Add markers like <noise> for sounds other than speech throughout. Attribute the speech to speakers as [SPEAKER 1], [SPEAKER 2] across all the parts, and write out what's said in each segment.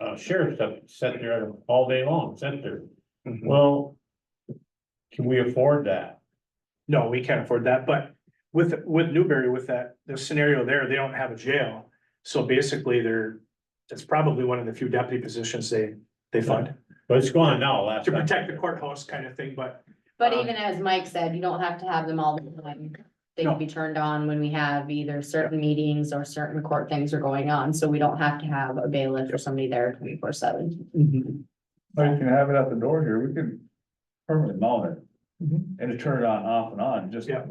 [SPEAKER 1] uh, sheriff's up, sat there all day long, sat there.
[SPEAKER 2] Mm-hmm.
[SPEAKER 3] Mhm.
[SPEAKER 1] Well, can we afford that?
[SPEAKER 3] No, we can't afford that, but with, with Newberry, with that, the scenario there, they don't have a jail. So basically, they're, it's probably one of the few deputy positions they, they fund
[SPEAKER 1] But it's gone now last.
[SPEAKER 3] to
[SPEAKER 1] time.
[SPEAKER 3] protect the courthouse kind of thing, but
[SPEAKER 4] But
[SPEAKER 3] Um,
[SPEAKER 4] even as Mike said, you don't have to have them all the time. They
[SPEAKER 3] No.
[SPEAKER 4] can be turned on when we have either certain meetings or certain court things are going on, so we don't have to have a bailiff or somebody there twenty-four seven.
[SPEAKER 2] Mm-hmm.
[SPEAKER 5] Or you can have it at the door here, we can permanently mount it and turn it on, off and on, just.
[SPEAKER 3] Mm-hmm.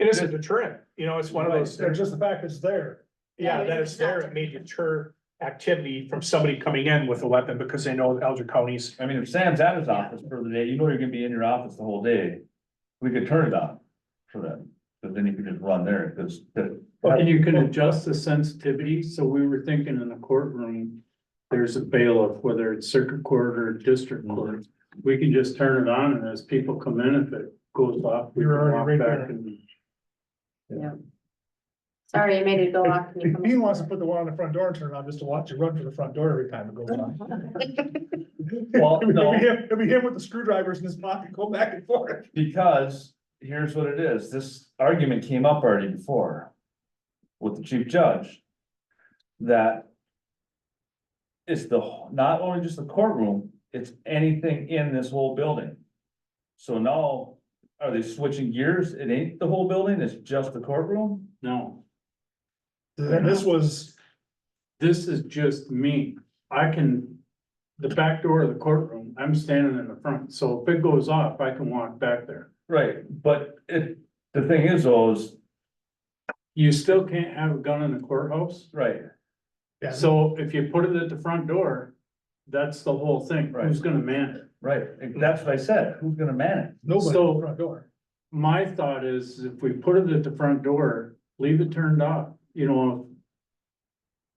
[SPEAKER 3] Yeah. it is a deterrent, you know, it's one of those.
[SPEAKER 2] They're just the fact it's there.
[SPEAKER 3] Yeah,
[SPEAKER 4] Yeah,
[SPEAKER 3] that
[SPEAKER 4] it's
[SPEAKER 3] is there,
[SPEAKER 4] not-
[SPEAKER 3] it may deter activity from somebody coming in with a weapon because they know Alger County's.
[SPEAKER 5] I mean, if Sam's at his office for the day, you know you're gonna be in your office the whole day. We could turn it on for them, but then you can just run there, because the
[SPEAKER 6] And you can adjust the sensitivity, so we were thinking in a courtroom, there's a bailiff, whether it's circuit court or district court. We can just turn it on and as people come in, if it goes off, we
[SPEAKER 2] You're
[SPEAKER 6] can
[SPEAKER 2] already right
[SPEAKER 6] walk
[SPEAKER 2] there.
[SPEAKER 6] back and.
[SPEAKER 4] Sorry, I made it go off. Can you come
[SPEAKER 2] He wants
[SPEAKER 4] <laughs>
[SPEAKER 2] to put the one on the front door and turn it on just to watch it run for the front door every time it goes on.
[SPEAKER 5] Well,
[SPEAKER 2] It'll be
[SPEAKER 1] <laughs>
[SPEAKER 5] no.
[SPEAKER 2] him- it'll be him with the screwdrivers in his pocket, go back and forth.
[SPEAKER 5] Because here's what it is, this argument came up already before with the chief judge. That it's the, wh- not only just the courtroom, it's anything in this whole building. So now, are they switching gears? It ain't the whole building, it's just the courtroom?
[SPEAKER 6] No,
[SPEAKER 2] And this was,
[SPEAKER 6] this is just me. I can, the back door of the courtroom, I'm standing in the front, so if it goes off, I can walk back there.
[SPEAKER 5] Right, but it, the thing is though, is,
[SPEAKER 6] You still can't have a gun in the courthouse.
[SPEAKER 5] right,
[SPEAKER 2] yeah,
[SPEAKER 6] So if you put it at the front door, that's the whole thing.
[SPEAKER 5] Right.
[SPEAKER 6] Who's gonna man it?
[SPEAKER 5] right, that's what I said, who's gonna manage?
[SPEAKER 2] nobody
[SPEAKER 6] so-
[SPEAKER 2] at the front door.
[SPEAKER 6] My thought is if we put it at the front door, leave it turned off, you know,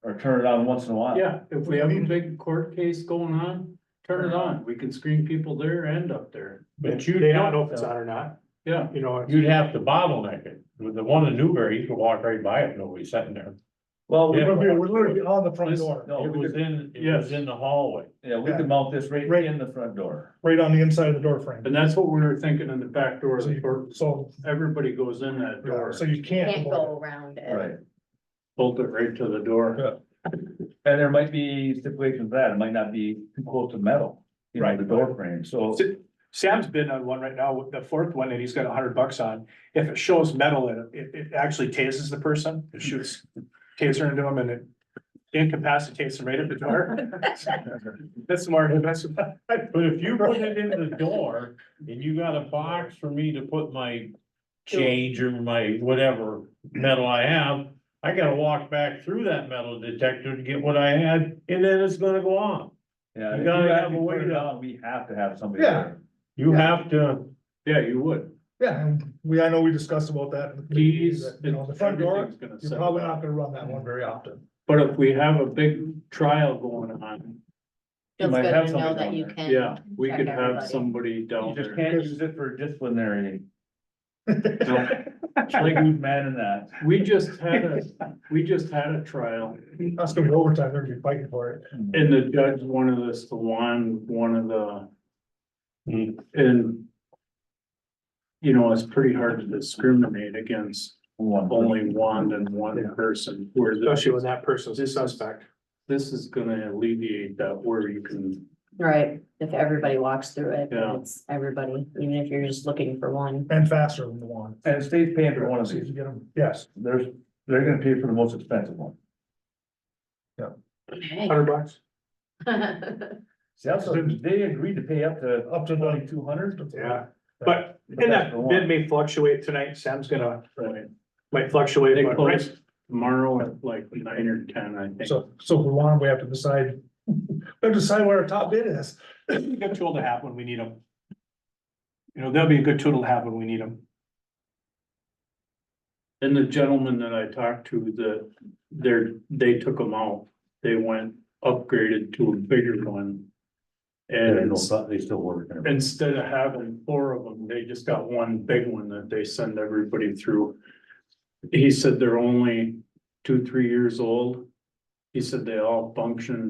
[SPEAKER 5] Or turn it on once in a while?
[SPEAKER 6] yeah, if we have a big court case going on, turn it on. We can screen people there and up there.
[SPEAKER 1] But
[SPEAKER 3] They
[SPEAKER 1] you.
[SPEAKER 3] don't know if it's on or not,
[SPEAKER 6] Yeah,
[SPEAKER 3] you know.
[SPEAKER 1] You'd have to bottleneck it. With the one in Newberry, you could walk right by it, nobody's sitting there.
[SPEAKER 5] Well, we-
[SPEAKER 1] Yeah.
[SPEAKER 2] We're we're literally on the front door,
[SPEAKER 5] no,
[SPEAKER 1] It
[SPEAKER 5] we
[SPEAKER 1] was
[SPEAKER 5] could,
[SPEAKER 1] in, it was in the hallway.
[SPEAKER 5] yeah, we could mount this right
[SPEAKER 2] Right.
[SPEAKER 5] in the front door.
[SPEAKER 2] right on the inside of the door frame.
[SPEAKER 6] and that's what we were thinking in the back door of
[SPEAKER 2] So
[SPEAKER 6] the
[SPEAKER 2] you-
[SPEAKER 6] court.
[SPEAKER 2] So,
[SPEAKER 6] Everybody goes in that door,
[SPEAKER 2] so you
[SPEAKER 4] Can't
[SPEAKER 2] can't.
[SPEAKER 4] go around it.
[SPEAKER 5] Right,
[SPEAKER 6] bolt it right to the door.
[SPEAKER 5] and there might be stipulations for that, it might not be too close to metal, you know, the door frame, so.
[SPEAKER 3] Sam's bidding on one right now, with the fourth one that he's got a hundred bucks on. If it shows metal, in it, it, it actually tases the person, it shoots taser into him and it incapacitates him right at the <laughs> door. That's more impressive.
[SPEAKER 1] But if
[SPEAKER 5] <laughs>
[SPEAKER 1] you put it in the door and you got a box for me to put my change or my whatever metal I have, I gotta walk back through that metal detector to get what I had, and then it's gonna go on.
[SPEAKER 5] Yeah,
[SPEAKER 1] You
[SPEAKER 5] if
[SPEAKER 1] gotta have
[SPEAKER 5] actually
[SPEAKER 1] a way
[SPEAKER 5] put it
[SPEAKER 1] to-
[SPEAKER 5] on, We have to have somebody
[SPEAKER 2] Yeah.
[SPEAKER 5] there.
[SPEAKER 1] You have to,
[SPEAKER 6] Yeah, you would.
[SPEAKER 2] Yeah, and we, I know we discussed about that.
[SPEAKER 6] Keys.
[SPEAKER 2] You know, the front door,
[SPEAKER 6] everything's gonna
[SPEAKER 2] you're
[SPEAKER 6] set
[SPEAKER 2] probably
[SPEAKER 6] up.
[SPEAKER 2] not gonna run that one very often.
[SPEAKER 6] But if we have a big trial going on,
[SPEAKER 5] You
[SPEAKER 4] Feels
[SPEAKER 5] might
[SPEAKER 4] good
[SPEAKER 5] have
[SPEAKER 4] to know
[SPEAKER 5] somebody
[SPEAKER 4] that
[SPEAKER 5] down
[SPEAKER 4] you
[SPEAKER 5] there.
[SPEAKER 4] can.
[SPEAKER 6] yeah, we
[SPEAKER 4] check
[SPEAKER 6] could have
[SPEAKER 4] everybody.
[SPEAKER 6] somebody
[SPEAKER 5] You
[SPEAKER 6] down
[SPEAKER 5] just
[SPEAKER 6] there.
[SPEAKER 5] can't use it for disciplinary. Like man in that,
[SPEAKER 6] We just had a, we just had a trial
[SPEAKER 2] That's gonna be overtime, they're gonna be fighting for it.
[SPEAKER 6] and the judge wanted us to wand one of the.
[SPEAKER 1] Hmm.
[SPEAKER 6] And. You know, it's pretty hard to discriminate against
[SPEAKER 5] one.
[SPEAKER 6] only one and one person where this,
[SPEAKER 3] Especially when that person's a suspect.
[SPEAKER 6] this is gonna alleviate that where you can.
[SPEAKER 4] Right, if everybody walks through it,
[SPEAKER 6] Yeah.
[SPEAKER 4] it's everybody, even if you're just looking for one.
[SPEAKER 2] And faster than the one.
[SPEAKER 5] And the state's paying for one of
[SPEAKER 2] So you
[SPEAKER 5] these,
[SPEAKER 2] can get 'em- Yes,
[SPEAKER 5] there's, they're gonna pay for the most expensive one.
[SPEAKER 4] <laughs>
[SPEAKER 3] Hundred bucks.
[SPEAKER 5] See, that's, what- they agreed to pay up to
[SPEAKER 2] up to the
[SPEAKER 5] twenty-two hundred.
[SPEAKER 3] Yeah, but and
[SPEAKER 5] that's
[SPEAKER 3] that
[SPEAKER 5] for one.
[SPEAKER 3] bid may fluctuate tonight. Sam's gonna,
[SPEAKER 6] Right.
[SPEAKER 3] might
[SPEAKER 6] They
[SPEAKER 3] fluctuate, but
[SPEAKER 6] close
[SPEAKER 3] right,
[SPEAKER 6] tomorrow at like nine or ten, I think.
[SPEAKER 2] So, so if we want, 'em, we have to decide, we have to decide what our top bid is.
[SPEAKER 3] a good tool to have when we need them. You know, they'll be a good tool to have when we need them.
[SPEAKER 6] And the gentleman that I talked to, the, they're, they took them out, they went upgraded to a bigger one. And
[SPEAKER 5] they still work.
[SPEAKER 6] instead of having four of them, they just got one big one that they send everybody through. He said they're only two, three years old. He said they all function